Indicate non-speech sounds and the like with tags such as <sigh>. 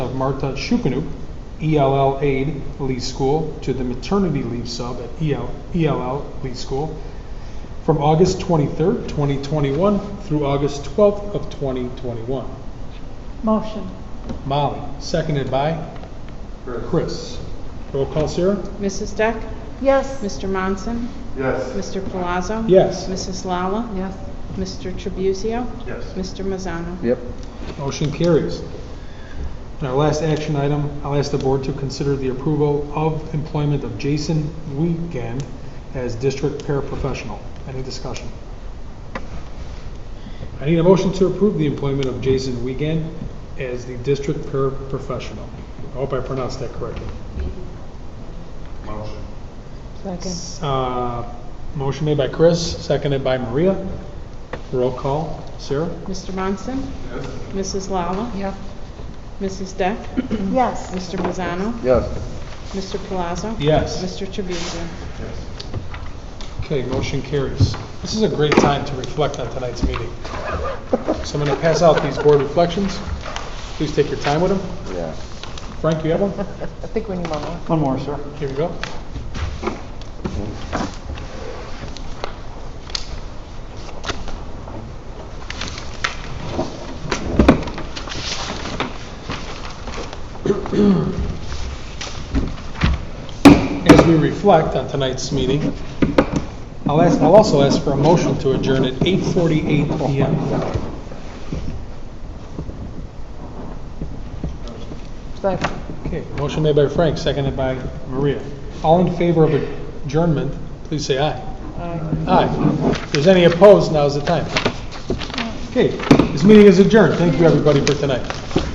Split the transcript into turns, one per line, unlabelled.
Marta Shukenuk, ELL E aide, Lee School, to the maternity leave sub at E EL ELL, Lee School, from August 23rd, 2021 through August 12th of 2021.
Motion.
Molly, seconded by Chris. Roll call, Sarah?
Mrs. Deck?
Yes.
Mr. Monson?
Yes.
Mr. Palazzo?
Yes.
Mrs. Lala?
Yes.
Mr. Tribuzio?
Yes.
Mr. Mazzano?
Yep.
Motion carries. And our last action item, I'll ask the board to consider the approval of employment of Jason Weekend as district paraprofessional. Any discussion? I need a motion to approve the employment of Jason Weekend as the district paraprofessional. I hope I pronounced that correctly.
Motion.
Second.
Uh, Motion made by Chris, seconded by Maria. Roll call, Sarah?
Mr. Monson?
Yes.
Mrs. Lala?
Yes.
Mrs. Deck?
Yes.
Mr. Mazzano?
Yes.
Mr. Palazzo?
Yes.
Mr. Tribuzio?
Yes.
Okay, motion carries. This is a great time to reflect on tonight's meeting. So I'm going to pass out these board reflections. Please take your time with them.
Yeah.
Frank, you have one?
<laughs> I think we need one more.
One more, sir.
Here we go. <clears throat> As we reflect on tonight's meeting, I'll ask, I'll also ask for a motion to adjourn at 8:48 PM.
Second.
Okay, motion made by Frank, seconded by Maria. All in favor of adjournment, please say aye. Aye. If there's any opposed, now's the time. Okay, this meeting is adjourned. Thank you, everybody, for tonight.